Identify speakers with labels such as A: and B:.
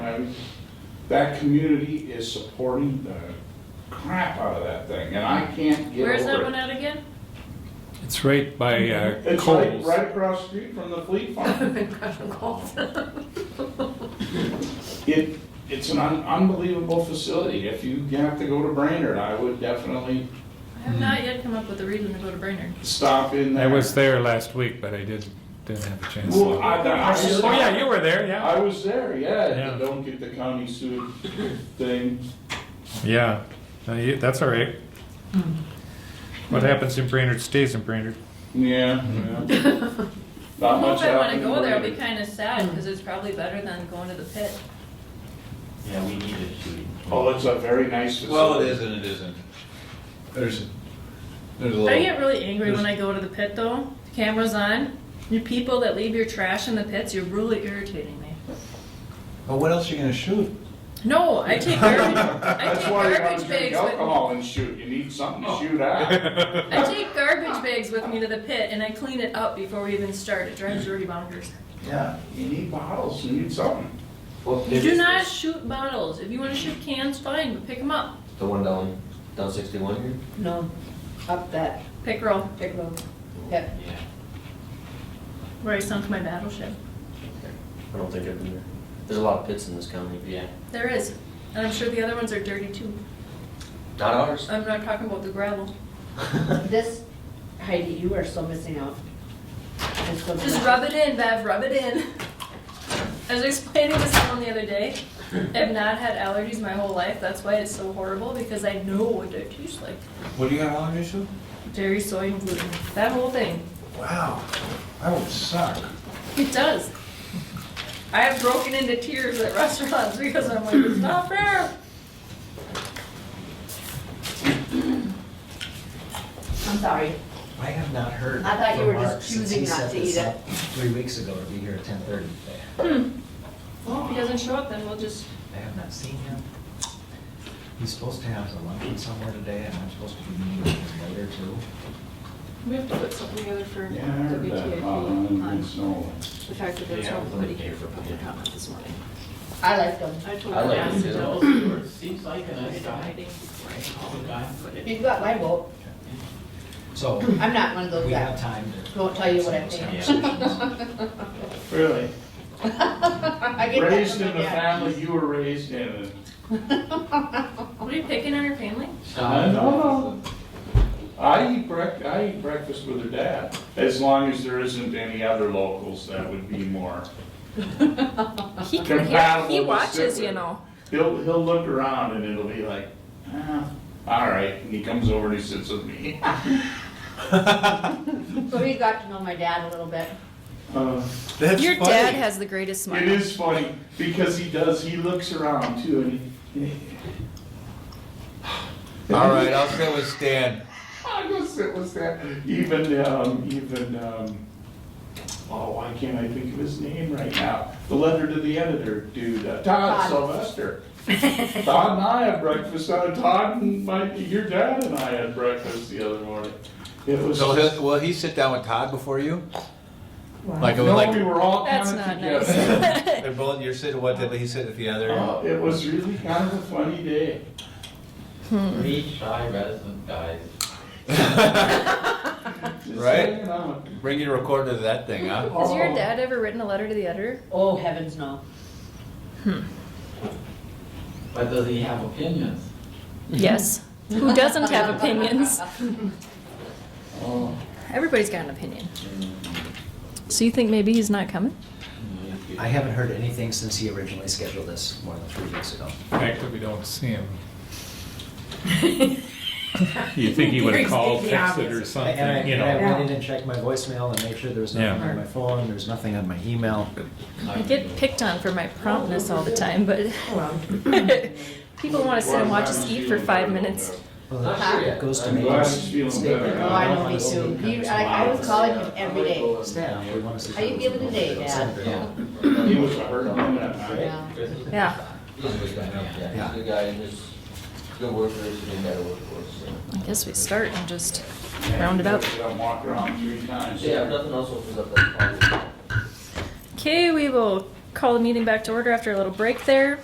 A: time, that community is supporting the crap out of that thing, and I can't get
B: Where's that
A: over
B: one
A: it.
B: at again?
C: It's right by uh,
A: It's like
C: Coles.
A: right across the street from the fleet farm. It, it's an un- unbelievable facility. If you have to go to Brainerd, I would definitely
B: I have not yet come up with a reason to go to Brainerd.
A: stop in
C: I
A: there.
C: was there last week, but I didn't didn't have a chance. to
A: Well, I, I was.
C: oh yeah, you were there. Yeah.
A: I was there, yeah, at the
C: Yeah.
A: don't get the county sued thing.
C: yeah. No, you- that's all right. Hmm. What happens in Brainerd stays in Brainerd.
A: Yeah, yeah. Not much
B: I hope I wanna
A: happened.
B: go there, it'll be
A: Brainerd.
B: kinda sad, cause it's probably better than going to the pit.
D: Yeah, we need it shooting.
A: Oh, it's a very nice facility.
E: Well, it is and it isn't. There's, there's a
B: I
E: little,
B: get really angry when I go to the pit though, the camera's on, you people that leave your trash in the pits, you're really irritating me.
E: but what else are you gonna shoot?
B: No, I take garbage, I
A: That's
B: take
A: why you have
B: garbage
A: to drink
B: bags with,
A: alcohol and shoot. You need something to shoot at.
B: I take garbage bags with me to the pit and I clean it up before we even start, it drives dirty bonkers.
A: Yeah, you need bottles, you need something.
B: You do not shoot bottles, if you wanna shoot cans, fine, but pick them up,
D: The one down, down sixty-one here?
F: No, up that
B: pick roll,
F: big road. Yep.
D: Yeah.
B: where I sunk my battleship.
D: I don't think I've been there. There's a lot of pits in this county, but yeah.
B: There is, and I'm sure the other ones are dirty too.
D: Not ours.
B: I'm not talking about the gravel.
F: This, Heidi, you are so missing out. It's so
B: Just
F: bad.
B: rub it in, Bev, rub it in. I was explaining to someone the other day, I've not had allergies my whole life, that's why it's so horrible, because I know what they taste like.
E: What do you got on your shoe?
B: Dairy, soy, and gluten, that whole thing.
E: Wow, that would suck.
B: It does. I have broken into tears at restaurants because I'm like, it's not fair.
F: I'm sorry.
G: I have not heard.
F: I thought you
G: from
F: were just
G: Mark since
F: choosing
G: he
F: not
G: set
F: to
G: this
F: eat it.
G: up Three weeks ago to be here at ten thirty today.
B: Well, if he doesn't show up, then we'll just,
G: I have not seen him. He's supposed to have a luncheon somewhere today, and I'm supposed to be meeting with him later too.
B: we have to put something together for
A: Yeah, I heard that. about
B: WTIP
A: it. I didn't
B: on
A: know.
B: the fact that there's
D: Yeah,
B: nobody
D: we'll
B: here for
D: pay for
B: public
D: it.
B: comment this morning.
F: I like them.
B: I told
D: I
B: her
D: like
B: ask
D: it
B: Bill.
D: too.
H: Seems like an aside, all the time, but it-
F: You've got my vote.
G: So
F: I'm not one of those
G: we
F: that
G: have time to.
F: won't tell you what I
G: have some
F: think.
G: of those conversations.
A: Really?
F: I get that
A: Raised
F: from my
A: in the
F: dad.
A: family you were raised in.
B: What are you picking on your family?
A: I don't know. I eat break, I eat breakfast with her dad, as long as there isn't any other locals that would be more.
B: He
A: can hear- he Compatible with watches,
B: watches,
A: Sydney.
B: you
A: you
B: know.
A: He'll, he'll look around and it'll be like, ah, all right, and he comes over and he sits with me.
F: So we got to know my dad a little bit.
A: Uh,
B: Your dad has the greatest
A: It
B: smile.
A: is funny, because he does, he looks around too, and he,
E: All right, I'll sit with Stan.
A: I guess it was that, even, um, even, um, oh, why can't I think of his name right now? The letter to the editor dude, uh, Todd
F: Todd.
A: Sylvester. Todd and I had breakfast, uh, Todd and my, your dad and I had breakfast the other morning. It was,
E: So
A: just-
E: he'll, will he sit down with Todd before you? Like,
A: no,
E: like,
A: we were all kind
B: That's
A: of
B: not
A: together.
B: nice.
E: they're both, you're sitting with one, he's sitting with the other.
A: Uh, It was really kind of a funny day.
D: Three shy resident guys.
A: Oh. Just
E: Right.
A: hanging out.
E: Bring your recorder to that thing, huh?
B: Has your dad ever written a letter to the editor?
F: Oh, heavens no.
H: but does he have opinions?
B: Yes. Who doesn't have opinions?
A: Oh.
B: Everybody's got an opinion. So you think maybe he's not coming?
G: I haven't heard anything since he originally scheduled this more than three weeks ago.
C: The fact that we don't see him. you think he would have
B: Gary's
C: called,
B: being the
C: texted, or
B: obvious.
C: something?
G: And I,
C: you
G: and
C: know.
G: I went in and checked my voicemail and made sure there was nothing
C: Yeah.
G: on my phone, there's nothing on my email.
B: I get picked on for my promptness all the time, but people want to sit and watch us eat for five minutes.
G: Well,
D: Not sure yet.
G: it goes to
D: I'm
G: me.
A: glad he's feeling better.
F: No, Oh, I know me too. He, like, I was calling him every day.
G: Stan, we wanna see.
F: How you feeling today, Dad?
D: Yeah.
A: He was hurt on that night.
F: Yeah.
B: Yeah.
D: He's a good guy, yeah.
G: Yeah.
D: He's a good guy, and he's good worker, he's a good guy to work for, so.
B: I guess we start and just round it up.
A: Walk around three times.
D: Yeah, if nothing else opens up, that's probably.
B: Okay, we will call the meeting back to order after a little break there.